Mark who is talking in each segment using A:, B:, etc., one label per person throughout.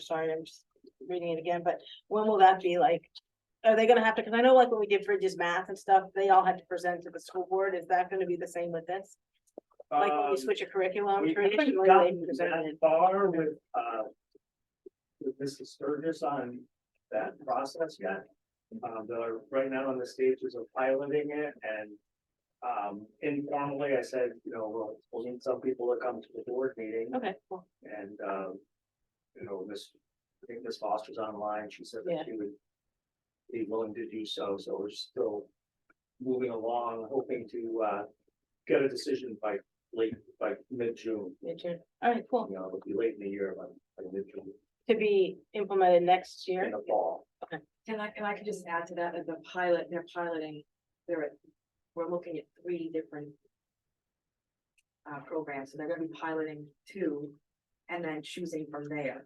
A: sorry, I'm just reading it again, but when will that be like? Are they gonna have to, cause I know like when we did Bridges math and stuff, they all had to present to the school board, is that gonna be the same with this? Like when
B: Um,
A: we switch a curriculum
B: we haven't
A: traditionally, they
B: gotten that
A: presented,
B: Far with, uh. With Mrs. Sturgis on that process yet. Uh, they're right now on the stages of piloting it and. Um, informally, I said, you know, we'll, we'll need some people to come to the board meeting
A: okay, cool,
B: and, um. You know, Miss, I think Miss Foster's online, she said
A: Yeah.
B: that she would. Be willing to do so, so we're still moving along, hoping to, uh, get a decision by late, by mid-June
A: me too, alright, cool,
B: you know, it'll be late in the year, but like literally
A: to be implemented next year.
B: in the fall.
C: And I, and I could just add to that, as the pilot, they're piloting, they're, we're looking at three different. Uh, programs, so they're gonna be piloting two and then choosing from there.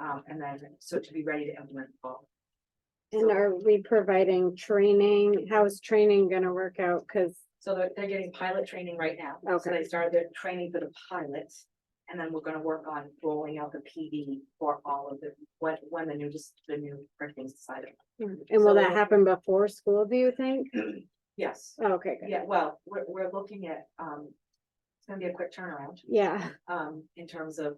C: Um, and then, so to be ready to implement all.
D: And are we providing training? How is training gonna work out? Cause,
C: So they're, they're getting pilot training right now. So
D: Okay.
C: they started their training for the pilots. And then we're gonna work on rolling out the PD for all of the, when, when the new, just the new curriculum decided.
D: Hmm, and will that happen before school, do you think? Oh,
C: Yes,
D: Okay, good.
C: yeah, well, we're, we're looking at, um, it's gonna be a quick turnaround.
D: Yeah.
C: um, in terms of,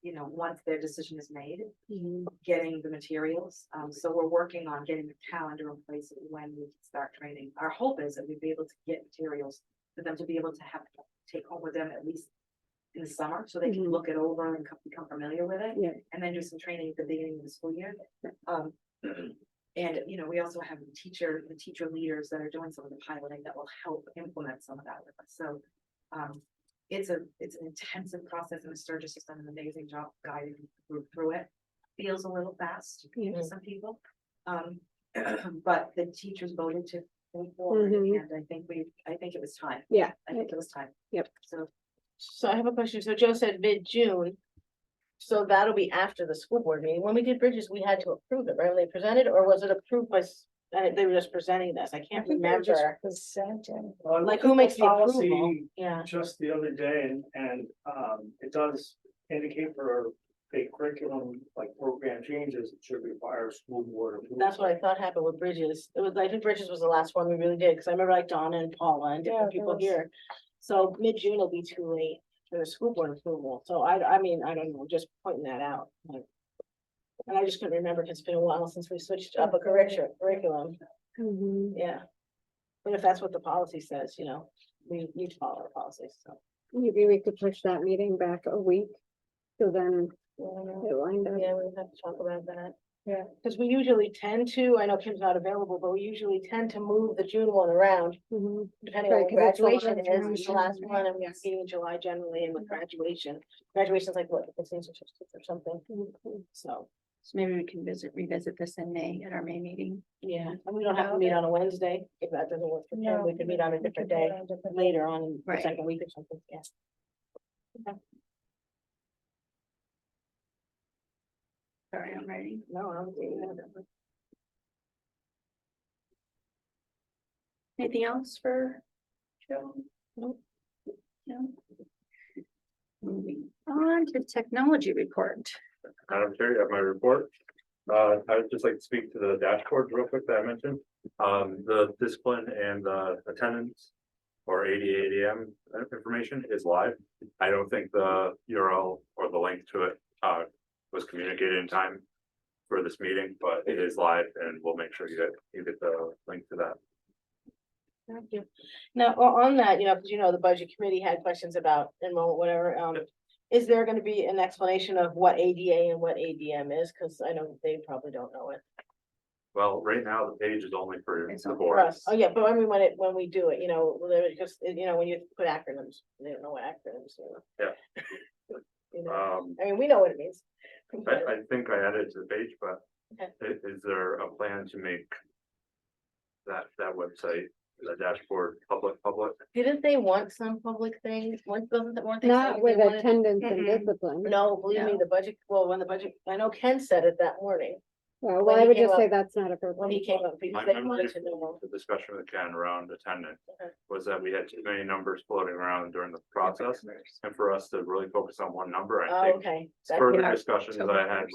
C: you know, once their decision is made,
A: Mm-hmm.
C: getting the materials. Um, so we're working on getting the calendar in place of when we can start training. Our hope is that we'd be able to get materials for them to be able to have, take home with them at least in the summer, so they can
D: Mhm.
C: look it over and come- become familiar with it.
D: Yeah.
C: And then do some training at the beginning of the school year. Um, and, you know, we also have the teacher, the teacher leaders that are doing some of the piloting that will help implement some of that with us. So, um, it's a, it's an intensive process and Sturgis has done an amazing job guiding the group through it. Feels a little fast
D: Yeah.
C: to some people. Um, but the teachers voted to move forward and
D: Mhm.
C: I think we, I think it was time.
D: Yeah,
C: I think it was time.
D: Yep.
C: So,
A: So I have a question, so Joe said mid-June. So that'll be after the school board meeting, when we did Bridges, we had to approve it, right, When they presented, or was it approved by, s- uh, they were just presenting this, I can't remember.
E: Presenting.
A: Like who makes the approval?
B: Policy
A: Yeah,
B: Just the other day and, and, um, it does indicate for a curriculum, like program changes, it should require school board. approval.
A: that's what I thought happened with Bridges, it was, I think Bridges was the last one we really did, cause I remember like Donna and Paula and
E: Yeah,
A: different
E: there
A: people
E: was-
A: here. So mid-June will be too late for the school board approval, so I, I mean, I don't know, just pointing that out. like. And I just couldn't remember, it it's been a while since we switched up a curricu- curriculum.
D: Mhm.
A: Yeah. But if that's what the policy says, you know, we need to follow our policies, so.
D: Maybe we could push that meeting back a week. So then it lined up.
A: we have to talk about that.
E: Yeah.
A: Cause we usually tend to, I know Kim's not available, but we usually tend to move the June one around,
D: Mhm.
A: depending on
D: Right,
A: when
D: 'cause it's late
A: graduation
D: in
A: is, it's the
D: June,
A: last
D: right?
A: one, and we have
D: Yes.
A: meeting in July generally, and with
E: Mm-hmm.
A: graduation. Graduation's like, what, the senior or something,
D: Okay.
A: so,
E: Mm-hmm. So maybe we can visit, revisit this in May at our May meeting.
A: yeah, and we don't have to meet on a Wednesday, if that doesn't work for Kim, we could meet on a different day, later on, in the
E: Right.
A: second week or something, yeah.
E: Sorry, I'm ready.
A: No, I don't think that.
E: Anything else for Joe?
A: Nope.
E: No. Moving on to technology report.
F: Madam Chair, you have my report. Uh, I would just like to speak to the dashboards real quick that I mentioned. Um, the discipline and the attendance or ADA ADM information is live. I don't think the URL or the link to it, uh, was communicated in time for this meeting, but it is live and we'll make sure you get, you get the link to that.
A: Thank you. Now, o- on that, you know, because you know, the budget committee had questions about enrollment, whatever, um. Is there gonna be an explanation of what ADA and what ADM is? Cause I know they probably don't know it.
F: Well, right now, the page is only for
E: It's
F: the
E: not
A: For
F: board.
A: us, oh yeah, but I mean, when it, when we do it, you know, well, they're just, you know, when you put acronyms, they don't know what acronyms are.
F: Yeah.
A: You know,
F: Um,
A: I mean, we know what it means.
F: I, I think I added to the page, but
A: Okay.
F: i- is there a plan to make that, that website, the dashboard, public, public?
A: Didn't they want some public things? Weren't, wasn't- weren't they saying
D: Not
A: they
D: with
A: wanted?
D: attendance and
E: Mhm.
D: discipline.
A: No, believe me,
E: No.
A: the budget, well, when the budget, I know Ken said it that morning.
D: Well,
A: when
D: well, I
A: he
D: would
A: came
D: just say
A: up-
D: that's not appropriate.
A: when he came up, because
F: My
A: they
F: memory
A: wanted to
F: from
A: know.
F: The discussion with Ken around attendance
A: Okay.
F: was that we had too many numbers floating around during the process. And for us to really focus on one number, I
A: Oh,
F: think
A: okay. That's-
F: further
E: yeah,
F: discussions
E: so
F: that I had
E: numbers.